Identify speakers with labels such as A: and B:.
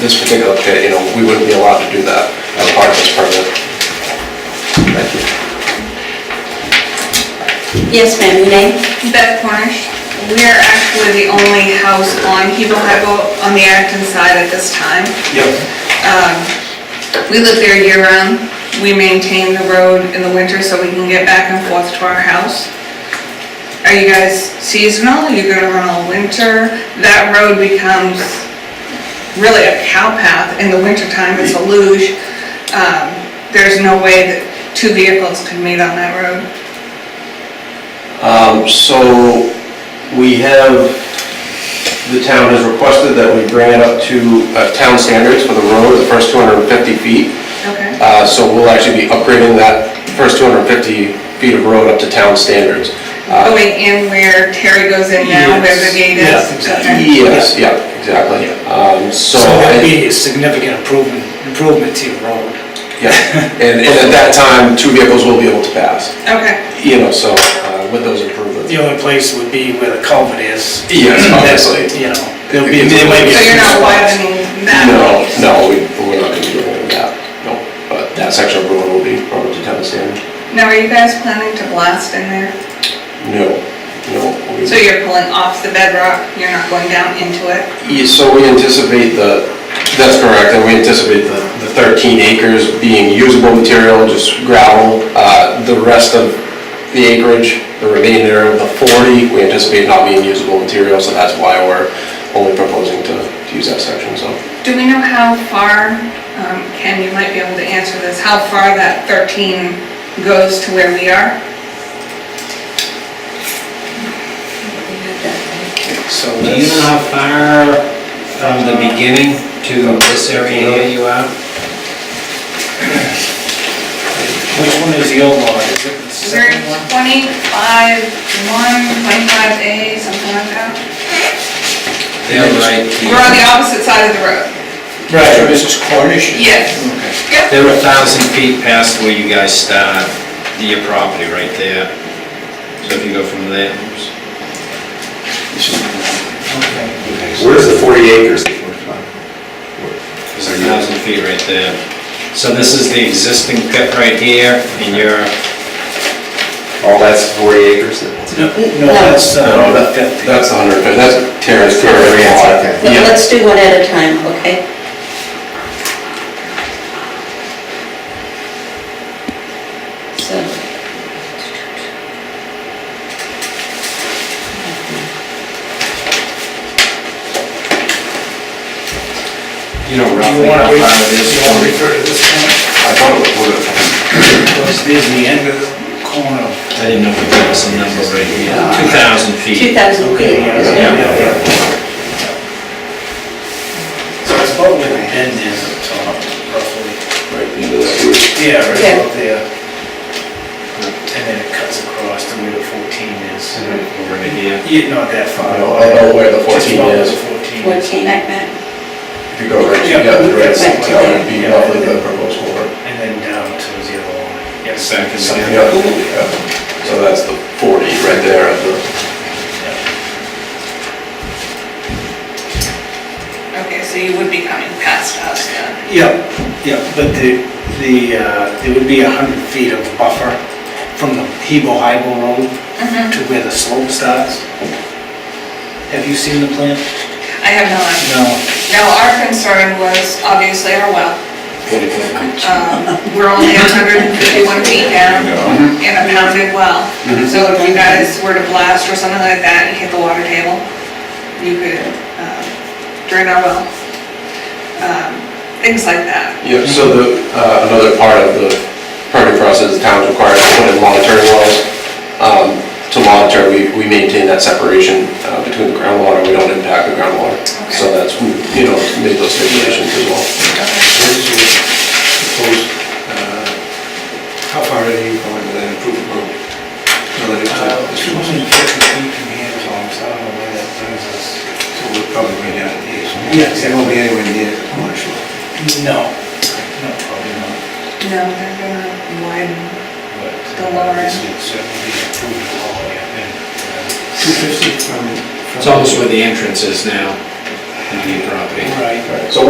A: this particular pit, you know, we wouldn't be allowed to do that as part of this permit. Thank you.
B: Yes, ma'am, your name?
C: Beth Cornish, we are actually the only house on Hebo Highboat on the Acton side at this time.
A: Yep.
C: We live there year round. We maintain the road in the winter so we can get back and forth to our house. Are you guys seasonal? You're gonna run all winter? That road becomes really a cow path in the wintertime. It's a luge. Um, There's no way that two vehicles can meet on that road.
D: Um, So we have, the town has requested that we bring it up to
A: Uh, Town standards for the road, the first 250 feet.
C: Okay.
A: Uh, So we'll actually be upgrading that first 250 feet of road up to town standards. Uh,
C: Going in where Terry goes in now, where the gate is.
E: Yes, yeah, exactly.
C: Okay.
A: Yes, yeah, exactly. Um, So,
E: So
A: and-
E: that'd be a significant improvement, improvement to your road.
A: yeah, and and at that time, two vehicles will be able to pass,
C: Okay.
A: you know, so uh, with those improvements.
E: The only place would be where the culvert is.
A: Yes, obviously.
E: You know, there'll be, there might be.
C: So
E: a
C: you're
E: few
C: not
E: spots.
C: widening that
A: No,
C: piece?
A: no, we- we're not going to do any of that, no. But that section of road will be brought up to town standard.
C: Now, are you guys planning to blast in there?
A: No, no. we-
C: So you're pulling off the bedrock, you're not going down into it?
A: Yeah, So we anticipate the, that's correct, and we anticipate the the 13 acres being usable material, just gravel. Uh, The rest of the acreage, the remainder of the 40, we anticipate not being usable material, so that's why we're only proposing to to use that section, so.
C: Do we know how far, um, Ken, you might be able to answer this, how far that 13 goes to where we are?
E: So
F: Do you know
E: that's,
F: how far from the beginning to this area here you are?
E: which one is the old lot? Is it the
C: Is there
E: second one?
C: 25, 1, 25A, something like that?
F: They're right
C: We're on
F: here.
C: the opposite side of the road.
E: Right, or Mrs. Cornish?
C: Yes. Yep.
F: They're a thousand feet past where you guys start, your property right there. So if you go from there, oops.
G: Where's the 40 acres?
F: It's a thousand feet right there. So this is the existing pit right here, and you're,
G: All that's 40 acres?
E: No, no, that's,
A: No,
E: uh,
A: that- That's 150, that's Terrace current
G: Terrace,
A: lot.
G: Oh, okay.
B: Let-
A: Yeah.
B: Let's do one at a time, okay? So.
F: you know
E: do you
F: roughly
E: wanna
F: how
E: wait,
F: far it
E: do
F: is.
E: you wanna refer to this one?
A: I thought it was wooded.
E: Because there's the end of the corner.
F: I didn't know if there was some number right here. Two thousand feet.
B: 2,000 feet.
E: yeah, yeah, yeah. So it's about where the end is up top, roughly. Yeah, right
B: Yeah.
E: about there. And then it Uh, cuts across to where the 14 is.
F: Over here.
E: Yeah, not that far.
A: I don't- I don't know where the
E: Just
A: 14
E: about where
A: is.
E: the 14 is.
B: 14, like that.
A: If you go right,
E: Yeah.
A: yeah, the right,
B: Right.
A: that would be roughly the proposed corner.
E: And then down towards the other one. Yeah,
F: Back in
E: something.
F: there.
A: Yeah, yeah. So that's the 40 right there at the.
C: Okay, so you would be coming past us then?
E: Yeah, yeah, but the, the, uh, there would be 100 feet of buffer from the Hebo Highbo Road to where the slope starts. Have you seen the plan?
C: I have no idea.
E: No.
C: Now, our concern was obviously our well. Um, We're only 151 feet down in a pounded well. So if you guys were to blast or something like that and hit the water table, you could um, drain our well. Um, Things like that.
A: Yeah, so the, uh, another part of the permit process, the town's required to put in monitoring wells. Um, To monitor, we, we maintain that separation uh, between the groundwater, we don't impact the groundwater. So that's, you know, made those stipulations as well.
H: What is your proposed, uh, how far are you going with that improvement road? Relative to
E: Uh,
H: this
E: Two
H: one?
E: hundred and fifty feet from here is all, so I don't know where that brings us.
H: So we're probably way down here.
E: Yes.
H: It won't be anywhere near the corner shore.
E: No, no, probably not.
C: No, they're gonna widen.
E: But
C: The lower
E: This
C: end.
E: would certainly be approved all the way up in. uh,
H: Two fifty from.
F: It's almost where the entrance is now, into your property.
E: Right.
A: So